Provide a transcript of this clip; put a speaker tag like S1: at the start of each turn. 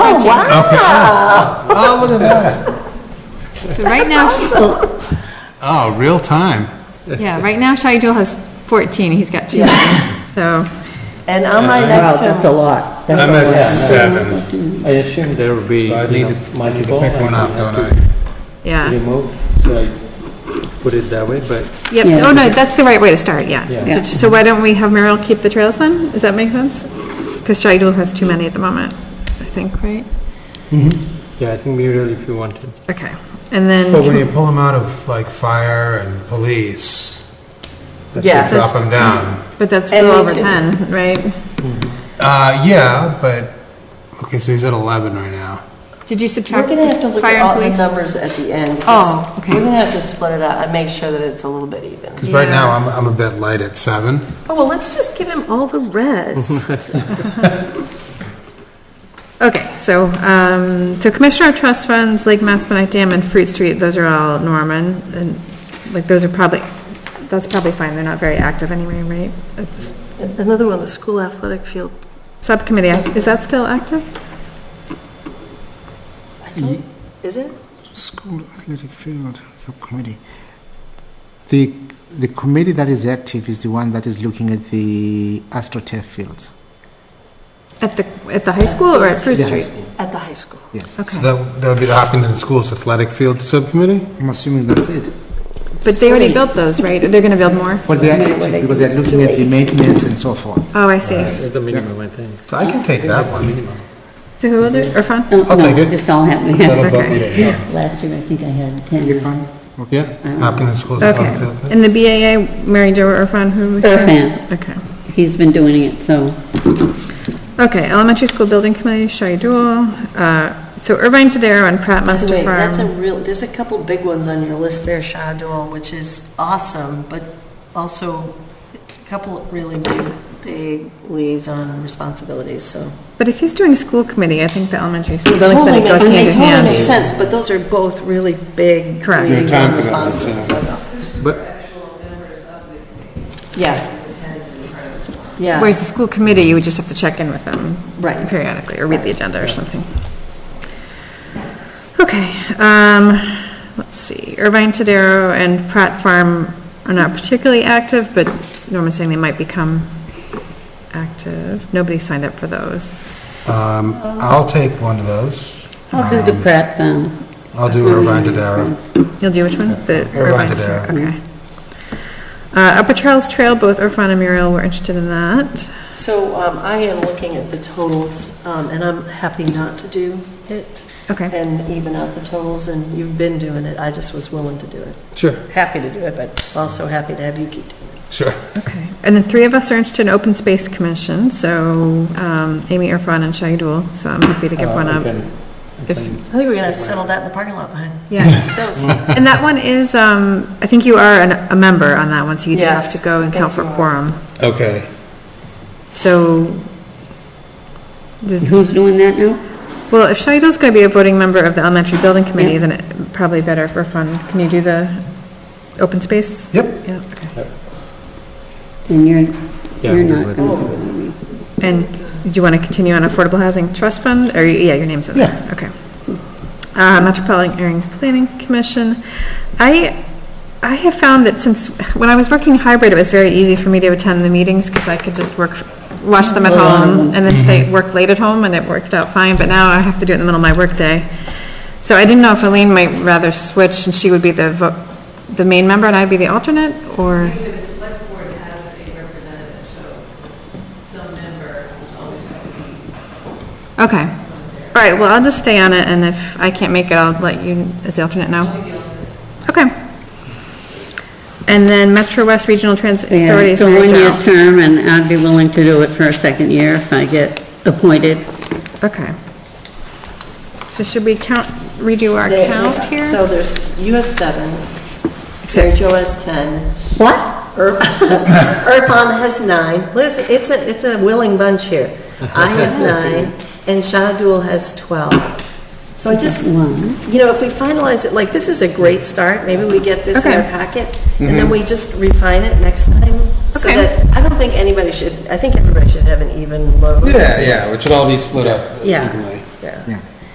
S1: Oh, wow.
S2: Oh, look at that.
S3: So right now,
S2: Oh, real time.
S3: yeah, right now Shai-Dul has 14, he's got two, so,
S1: And I'm right
S4: Wow,
S1: next to
S4: that's a
S1: him.
S4: lot. That's
S5: I'm
S4: a lot.
S5: at seven,
S6: I assume there will be, you
S5: so I need to
S6: know,
S5: I need to
S6: multiple.
S5: pick
S6: and
S5: one up,
S6: you
S5: don't
S6: have
S5: I?
S6: to
S3: yeah.
S6: Remove, so I put it that way, but
S3: Yep,
S4: Yeah.
S3: oh, no, that's the right way to start, yeah.
S6: Yeah.
S4: Yeah.
S3: So why don't we have Merrill keep the trails then? Does that make sense? Because Shai-Dul has too many at the moment, I think, right?
S6: yeah, I think Muriel, if you want to.
S3: Okay,
S2: But when
S3: and then,
S2: you pull them out of like fire and police, that
S1: Yeah.
S2: should drop them down.
S3: but that's
S1: And
S3: still
S1: we
S3: over
S1: do.
S3: 10, right?
S2: Uh, yeah, but, okay, so he's at 11 right now.
S3: Did you
S1: We're
S3: subtract
S1: gonna have to look
S3: fire
S1: at
S3: and
S1: all the
S3: police?
S1: numbers at the end. 'cause
S3: Oh, okay.
S1: We're gonna have to split it out and make sure that it's a little bit even.
S2: Because right
S3: Yeah.
S2: now, I'm, I'm a bit light at seven.
S1: Oh, well, let's just give him all the rest.
S3: Okay, so, um, so Commissioner of Trust Funds, Lake Maspinock Dam and Fruit Street, those are all Norman, and, like, those are probably, that's probably fine, they're not very active anyway, right? At this-
S1: Another one, the school athletic field.
S3: Subcommittee, is that still active?
S1: Is it?
S7: School Athletic Field Subcommittee. The, the committee that is active is the one that is looking at the AstroTurf fields.
S3: At the, at the high school or at Fruit
S7: The high
S3: Street?
S7: school,
S1: At the high school.
S7: Yes.
S2: So
S3: Okay,
S2: that, that would be the Hopkinton Schools Athletic Field Subcommittee?
S7: I'm assuming that's it.
S3: but they already built those, right? They're gonna build more?
S7: But they are active because they're looking at the maintenance and so forth.
S3: Oh, I see.
S6: It's the minimum, I think.
S2: So I can take that one.
S3: So who will do, Irfan?
S4: No,
S2: I'll take
S4: no,
S2: it.
S4: Just all happen to
S5: That'll
S4: happen.
S5: bump me to eight.
S4: Last year, I think I had
S7: You
S4: 10.
S7: fine?
S2: Yeah, Hopkinton Schools Athletic Field.
S3: Okay, and the BAA, Mary Jo or Irfan, who? we-
S4: Irfan.
S3: Okay.
S4: He's been doing it, so.
S3: Okay, Elementary School Building Committee, Shai Dul, uh, so Irvine Tadero and Pratt Muster
S1: Wait, that's a
S3: Farm.
S1: real, there's a couple big ones on your list there, Shadul, which is awesome, but also a couple of really big, big liaison responsibilities, so.
S3: But if he's doing school committee, I think the elementary school building
S1: Totally
S3: committee
S1: makes-
S3: goes
S1: I mean,
S3: hand in
S1: They totally make
S3: hand.
S1: sense, but those are both really big
S3: Correct. There's
S1: liaison responsibilities, that's all.
S6: But,
S1: Yeah. Yeah,
S3: Whereas the school committee, you would just have to check in with them.
S1: Right.
S3: Periodically, or read the agenda or something. Okay, um, let's see, Irvine Tadero and Pratt Farm are not particularly active, but Norman's saying they might become active. Nobody signed up for those.
S2: Um, I'll take one of those.
S4: I'll do the prep, um.
S2: I'll do Irvine Tadaro.
S3: You'll do which one? The
S2: Irvine
S3: Irvine
S2: to
S3: Trail,
S2: Dare.
S3: okay. Uh, Upper Charles Trail, both Irfan and Muriel were interested in that.
S1: so um, I am looking at the totals, um, and I'm happy not to do it.
S3: Okay.
S1: And even out the totals, and you've been doing it, I just was willing to do it.
S2: Sure,
S1: Happy to do it, but also happy to have you keep doing
S2: sure.
S3: Okay. And the three of us are interested in Open Space Commission, so um, Amy, Irfan, and Shahidul, so I'm happy to give
S6: uh,
S3: one
S6: I
S3: up.
S6: can- I
S3: If-
S6: can-
S1: it. I think we're going to have to settle that in the parking lot behind.
S3: Yeah.
S1: those.
S3: And that one is, um, I think you are an- a member on that one, so you do have to
S1: Yes,
S3: go and
S1: I think
S3: count for
S1: you are.
S3: quorum.
S2: Okay.
S3: So, does-
S4: Who's doing that now?
S3: well, if Shahidul's going to be a voting member of the Elementary Building Committee, then it probably better for fun. Can you do the Open Space?
S2: Yep.
S3: Yeah, okay.
S4: And you're,
S6: Yeah,
S4: you're
S6: do
S4: not
S6: it.
S4: going to do it.
S3: And do you want to continue on Affordable Housing Trust Fund? Or, yeah, your name's in there. Okay. Uh, Metropolitan Area Planning Commission. I, I have found that since, when I was working hybrid, it was very easy for me to attend the meetings because I could just work, watch them at home and then stay, work late at home and it worked out fine. But now I have to do it in the middle of my workday. So I didn't know if Elaine might rather switch and she would be the, vo- the main member and I'd be the alternate or?
S8: The select board has a representative, so some member is always going to be
S3: Okay. All right, well, I'll just stay on it, and if I can't make it, I'll let you, as the alternate, know. Okay. And then Metro West Regional Transit
S4: Yeah,
S3: Authority
S4: It's
S3: is
S4: a
S3: Mary Jo.
S4: one-year term, and I'd be willing to do it for a second year if I get appointed.
S3: Okay. So should we count, redo our
S1: They-
S3: count here?
S1: So there's, you have seven, Mary
S3: Except-
S1: Jo has 10,
S4: What?
S1: Ir- Irfan has nine. Liz, it's a, it's a willing bunch here. I have nine, and Shadul has 12. So I just, you
S4: One.
S1: know, if we finalize it, like, this is a great start, maybe we get this in our
S3: Okay.
S1: packet, and then we just refine it next time. So
S3: Okay.
S1: that, I don't think anybody should, I think everybody should have an even load.
S2: Yeah, yeah, which should all be split up
S1: Yeah.
S2: evenly.
S1: Yeah.
S7: Yeah.